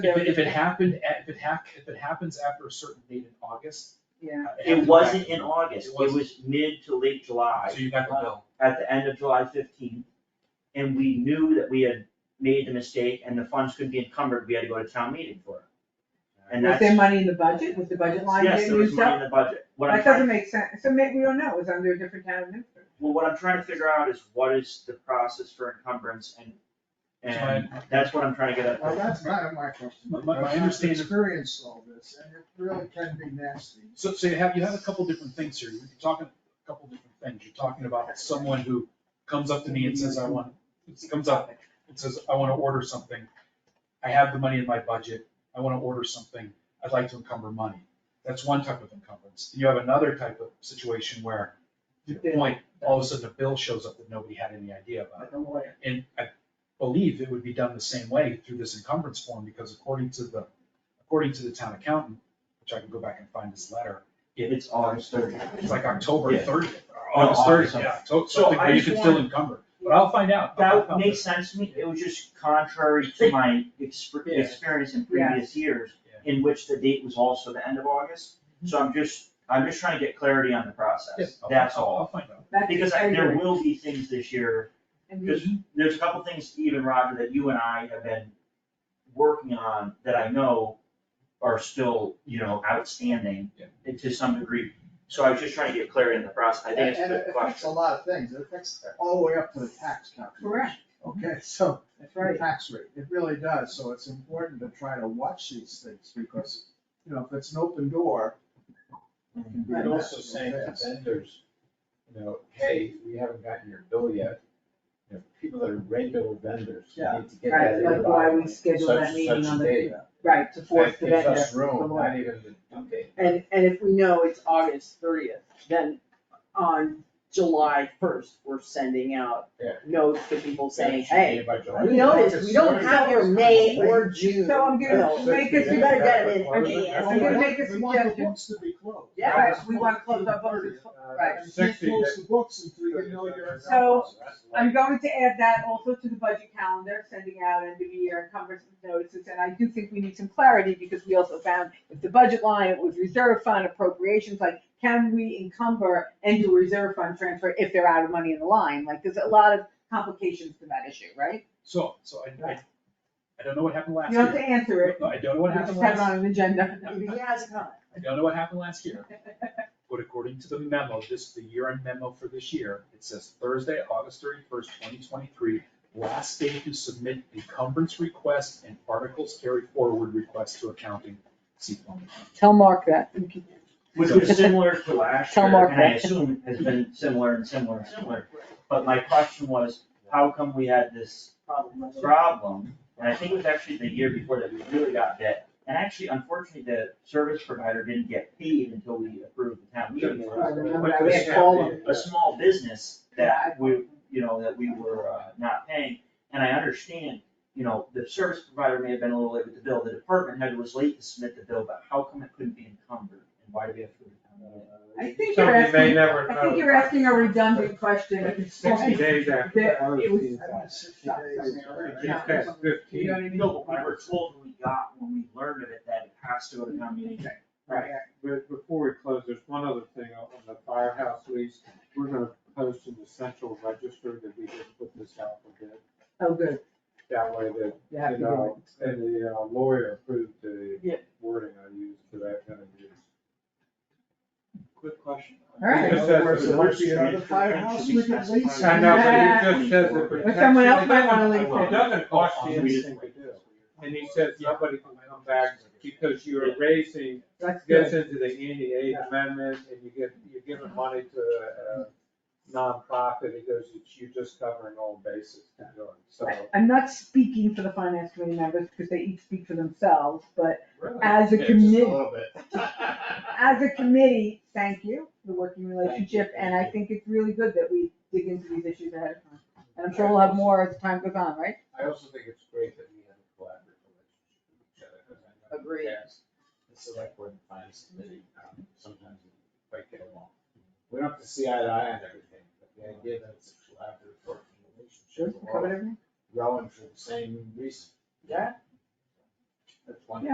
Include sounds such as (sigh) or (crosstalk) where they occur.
If it, if it happened, at- if it hap, if it happens after a certain date in August. Yeah. have to go It back. wasn't in August, It it wasn't. was mid to late So July, you got the bill. at the end of July fifteenth. And we knew that we had made the mistake and the funds could be encumbered, we had to go to town meeting for it. And Was that's, there money in the budget? Was the budget line yes, there getting was used money up? in the budget, what I'm That trying, doesn't make sense. So maybe we don't know. It was under a different town administrator. well, what I'm trying to figure out is what is the process for encumbrance and, and So I- that's what I'm trying to get Well, at. that's not my question. My- my- my I've understanding- Experienced all this, and it really can be nasty. So, so you have, you have a couple different things here, you're talking, a couple different things, you're talking about someone who comes up to me and says, I want, comes up and says, I wanna order something. I have the money in my budget, I wanna order something, I'd like to encumber money. That's one type of encumbrance. You have another type of situation where, to your point, all of a sudden a bill shows up that nobody had any idea about. Like a lawyer. And I believe it would be done the same way through this encumbrance form, because according to the, according to the town accountant, which I can go back and find his letter, It's August thirtieth. it's like October Yeah. thirtieth, August August thirtieth, yeah, to- So something I where you just can still want- encumber. But I'll find out. I'll- I'll That find makes out. sense to me, it was just contrary to my exper- Yeah. experience in previous years, in which the date was also the end of August. So I'm just, I'm just trying to get clarity on the Yeah, process, I'll- that's I'll- all. I'll find out. That's Because I- there angry. will be things this year, And we- because there's a couple things, even Roger, that you and I have been working on that I know are still, you know, outstanding Yeah. to some degree. So I was just trying to get clarity in the process, I think it's a And good it affects a question. lot of things, it affects all the way up to the tax calculation. Correct. Okay, so, That's the right. tax rate, it really does, so it's important to try to watch these things, because, you know, if it's an open door. it can be You're a also mess saying real to fast. vendors, you know, hey, we haven't gotten your bill yet. You know, people that are regular vendors, you Yeah. need to get that Right, in like why we schedule such- that meeting such on date. the, right, to force the That vendor. gives us the room, law. not even the due date. And, and if we know it's August thirtieth, then on July first, we're sending out Yeah. notes to people saying, It should hey, be by July. we noticed, we don't have your May or June. So I'm gonna Yeah. make a, You sug- better get it in, I Well, mean, that's- I'm gonna make a We want the suggestion. books to be closed. Yeah. Right, we want to close our books. Right. And can't close the books until you know your. So, I'm going to add that also to the budget calendar, sending out end of year encumbrance notices, and I do think we need some clarity, because we also found if the budget line was reserve fund appropriations, like, can we encumber and do a reserve fund transfer if they're out of money in the line? Like, there's a lot of complications to that issue, right? So, so I, I, I don't know what happened last You don't have to year. answer it, I don't know we what just happened have it last, on an agenda. He has not. I don't know what happened last year, but according to the memo, this, the year-end memo for this year, it says Thursday, August thirty-first, twenty twenty-three, last day to submit encumbrance request and articles carried forward request to accounting. See form. Tell Mark that. Which was similar to last year, Tell Mark and I that. assume has been similar and similar and similar. But my question was, how come we had this problem? And I think it was actually the year before that we really got that. And actually, unfortunately, the service provider didn't get paid until we approved the town meeting. I remember But that, it we was had to call them. A small business that we, you know, that we were uh, not paying. And I understand, you know, the service provider may have been a little late with the bill, the department head was late to submit the bill, but how come it couldn't be encumbered? And why do we have to? I think you're asking, I think you're asking a redundant question. (laughs) Sixty days after. That it was- I've been sixty days. It's past You know fifteen. what I mean? No, but we were told when we got, when we learned of it, that it has to go Mm-hmm. to town meeting. Right. But before we close, there's one other thing on the firehouse lease. We're gonna post an essential register that we just put this out for bid. Oh, good, That way that, you have you to do it. know, and the uh, lawyer approved the Yeah. wording I used for that kind of use. Quick question. All right. Because that's- Where's the recipe of the firehouse we could lease? I know, but he just says it But someone else might wanna protects- lease It doesn't cost you anything to do. And he says nobody can come back because you're raising That's gets good. into the anti-aid amendment and you get, you're giving money to a a nonprofit, it goes, "It's- you're just covering all bases. you know, So, I- I'm not speaking for the finance committee members because they each speak for themselves, but as a committee, as a committee, thank you, the working relationship, and I think it's really good that we dig into these issues ahead of time. And I'm sure we'll have more as time goes on, right? I also think it's great that we have a collaborative relationship with each other. 'cause I know in the Agreed. past, The select board and finance committee, um, sometimes we quite get along. We don't have to see eye to eye on everything, but the idea that it's a collaborative working relationship, we're all Covered everything? rowing for the same reason. Yeah. That's one.